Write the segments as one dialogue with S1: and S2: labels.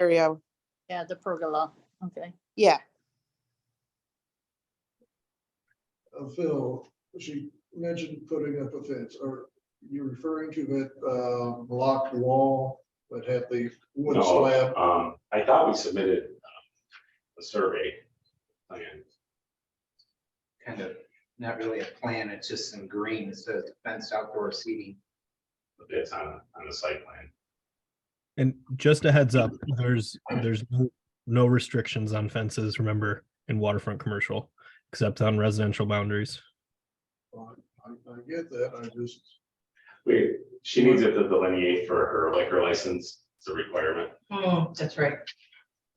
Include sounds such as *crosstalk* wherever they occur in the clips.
S1: area.
S2: Yeah, the pergola, okay.
S1: Yeah,
S3: uh, Phil, she mentioned putting up a fence, or you referring to that uh, blocked wall that had the wood
S4: No.
S3: slab?
S4: Um, I thought we submitted um, a survey plan.
S5: kind of, not really a plan, it's just in green, it says fenced outdoor seating.
S4: but It's on, on the site plan.
S6: And just a heads up, there's, there's no- no restrictions on fences, remember, in waterfront commercial, except on residential boundaries.
S3: I I get that, I just,
S4: We, she needs it to delineate for her liquor license, it's a requirement.
S7: Oh, that's right.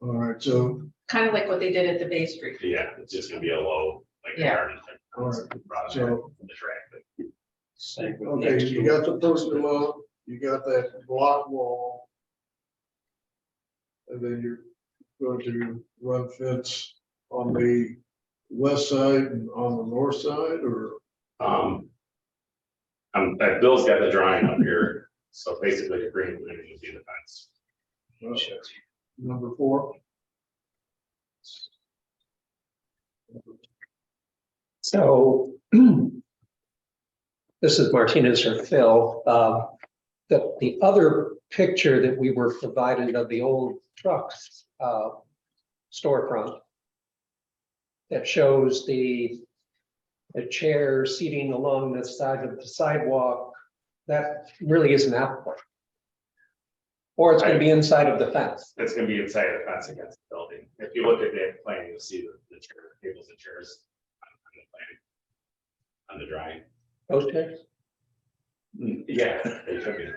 S3: all right, so,
S7: Kind of like what they did at the Bay Street.
S4: Yeah, it's just gonna be a low, like.
S7: Yeah.
S4: garden type
S3: Alright,
S4: product
S3: so-
S4: in The track,
S3: okay, you got the person law, you got that block wall. And then you're going to run fence on the west side and on the north side, or?
S4: but, um. Um, that Bill's got the drawing up here, so basically the green line would be the fence.
S3: uh, Number four.
S8: So *clears throat* this is Martinez or Phil. Um, The, the other picture that we were provided of the old trucks uh, storefront that shows the, the chair seating along the side of the sidewalk, that really isn't applicable. Or it's going to be inside of the fence.
S4: That's gonna be inside the fence against the building. If you look at that plan, you'll see the, the chair, tables and chairs. on- on the plan, On the drawing.
S8: Those chairs?
S4: Mm, Yeah, they took it.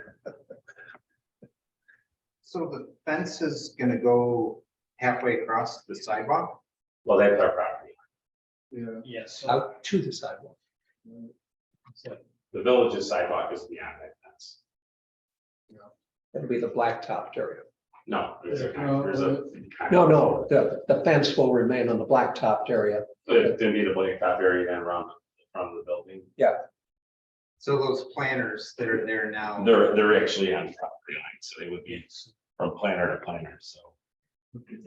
S5: So the fence is gonna go halfway across the sidewalk?
S4: Well, that's our property.
S3: Yeah,
S8: Yes. Out to the sidewalk.
S4: The village's sidewalk is beyond that fence.
S8: It'll be the blacktopped area.
S4: No, there's a,
S3: No,
S4: there's a.
S8: No, no, the, the fence will remain on the blacktopped area.
S4: It's gonna be the blacktop area then around, around the building.
S5: So those planters that are there now.
S4: They're, they're actually on the property line, so they would be from planner to planner, so.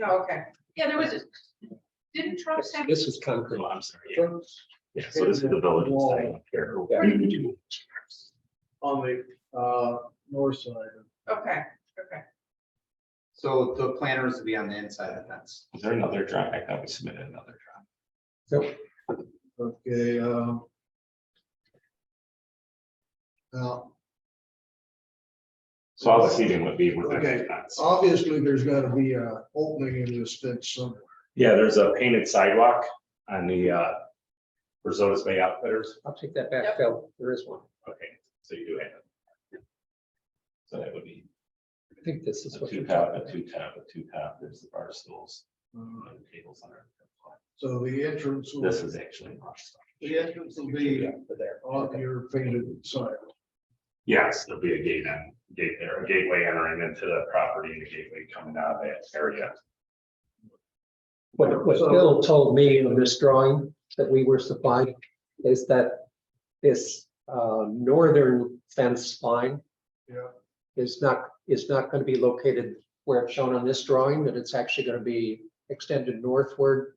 S7: Oh, okay. Yeah, there was, a didn't Trump say?
S8: This is concrete.
S4: Oh, I'm sorry. yeah. Yeah, so this is the village's sidewalk here.
S3: on the uh north side.
S7: Okay, okay.
S5: So the planters will be on the inside of the fence.
S4: Is there another drawing? I thought we submitted another drawing.
S3: Okay, um. Now,
S4: So all the seating would be within
S3: Okay.
S4: the fence.
S3: obviously, there's gotta be a opening in this fence somewhere.
S4: Yeah, there's a painted sidewalk on the uh Risota's Bay Outfitters.
S8: I'll take that back, Phil. There is one.
S4: Okay, so you do have. it. So that would be
S8: I think this is
S4: a
S8: what you're
S4: two
S8: talking
S4: top,
S8: about.
S4: a two top, a two top, there's the bar stools,
S3: Uh,
S4: and tables on it.
S3: So the entrance will,
S4: This is actually.
S3: the entrance will be on your painted side.
S4: Yes, there'll be a gate and gate there, a gateway entering into the property and a gateway coming out of that area.
S8: What, what Bill told me in this drawing that we were supplied is that this, uh, northern fence line
S3: Yeah.
S8: is not, is not going to be located where it's shown on this drawing, that it's actually going to be extended northward.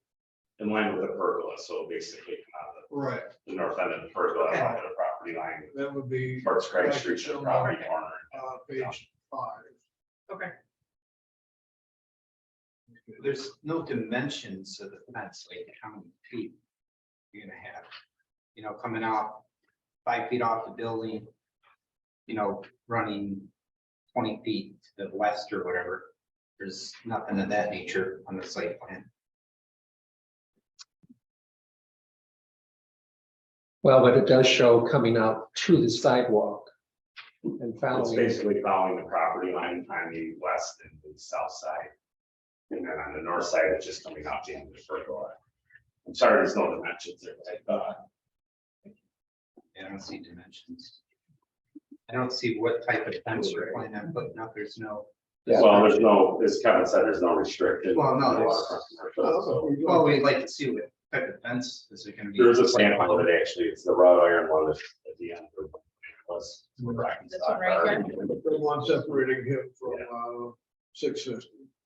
S4: In line with the pergola, so basically come out of
S3: Right,
S4: the north end of the pergola,
S5: Okay.
S4: out of the property line,
S3: that would be
S4: parts Craig Street, to the property corner.
S3: uh page five.
S5: There's no dimensions of the fence, like how many feet you're gonna have. You know, coming out five feet off the building, you know, running twenty feet to the west or whatever. There's nothing of that nature on the site plan.
S8: Well, but it does show coming out to the sidewalk and
S4: It's
S8: following.
S4: basically following the property line on the west and the south side. And then on the north side, it's just coming out the end of the pergola. I'm sorry, there's no dimensions there, but I thought,
S5: Yeah, I don't see dimensions. I don't see what type of fence you're planning on putting up. There's no,
S8: Yeah.
S4: well, there's no, as Kevin said, there's no restricted.
S5: Well, no, Oh, there's-
S4: waterfront commercial, so
S5: well, we'd like to see what type of fence is it gonna be.
S4: There's a sample of it, actually, it's the wrought iron one that's at the end. of the- was
S3: This
S4: rock and
S2: one right
S4: stock.
S3: The one separating him from uh six fifty.